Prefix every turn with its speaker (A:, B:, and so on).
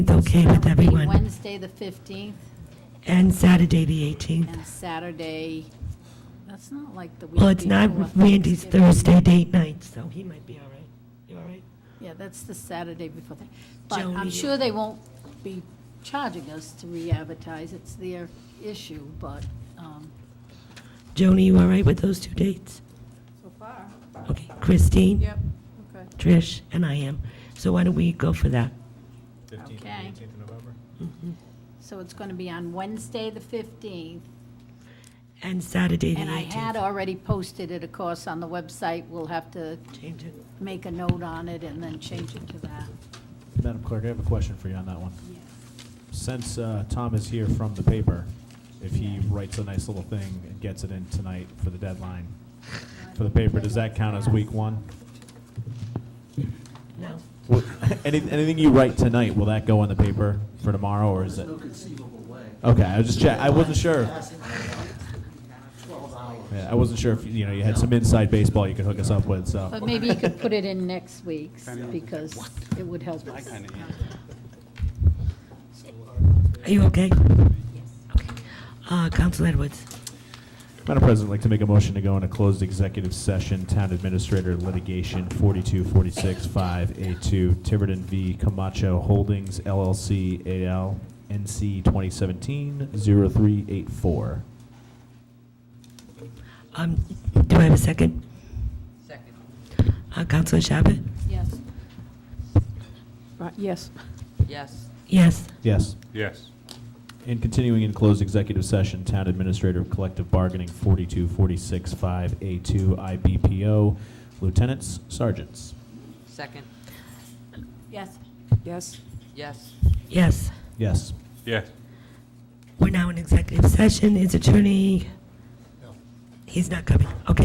A: It's okay with everyone.
B: Wednesday, the 15th,
A: And Saturday, the 18th.
B: and Saturday, that's not like the week
A: Well, it's not
B: before
A: Randy's
B: Thanksgiving.
A: Thursday date night, so he might be all right. You all right?
B: Yeah, that's the Saturday before that. But
A: Joni.
B: I'm sure they won't be charging us to re-advertise, it's their issue, but, um,
A: Joni, you all right with those two dates?
C: So far.
A: Okay, Christine?
C: Yep, okay.
A: Trish? And I am. So why don't we go for that? Mm-hmm.
D: 15th
B: Okay.
D: and 18th of November?
B: so it's going to be on Wednesday, the 15th.
A: And Saturday, the
B: And I had
A: 18th.
B: already posted it, of course, on the website, we'll have to
A: Change it.
B: make a note on it and then change it to that.
E: Madam Clerk, I have a question for you on that one. Since uh, Tom is here from the paper, if he writes a nice little thing and gets it in tonight for the deadline for the paper, does that count as week one?
A: No.
E: Will- any- Anything you write tonight, will that go in the paper for tomorrow, or is it?
F: There's no conceivable way.
E: Okay, I was just check, I wasn't sure.
F: Passing by about Twelve hours.
E: Yeah, I wasn't sure if, you know, you had some inside baseball you could hook us up with,
B: But
E: so.
B: maybe you could put it in next week's, because it would help us.
A: Are you okay? Okay. Uh, Counsel Edwards?
E: Madam President, I'd like to make a motion to go into closed executive session, Town Administrator Litigation 42465A2, Tiverton v. Camacho Holdings LLC AL, NC 2017-0384.
A: Um, do I have a second?
C: Second.
A: Uh, Counsel Shabbat?
B: Yes.
C: Yes. Yes.
A: Yes.
E: Yes.
D: Yes.
E: And continuing in closed executive session, Town Administrator Collective Bargaining 42465A2, IBPO, Lieutenants, Sergeants.
C: Second.
B: Yes.
C: Yes. Yes.
A: Yes.
E: Yes.
D: Yes.
A: We're now in executive session. Is attorney? He's not coming. Okay.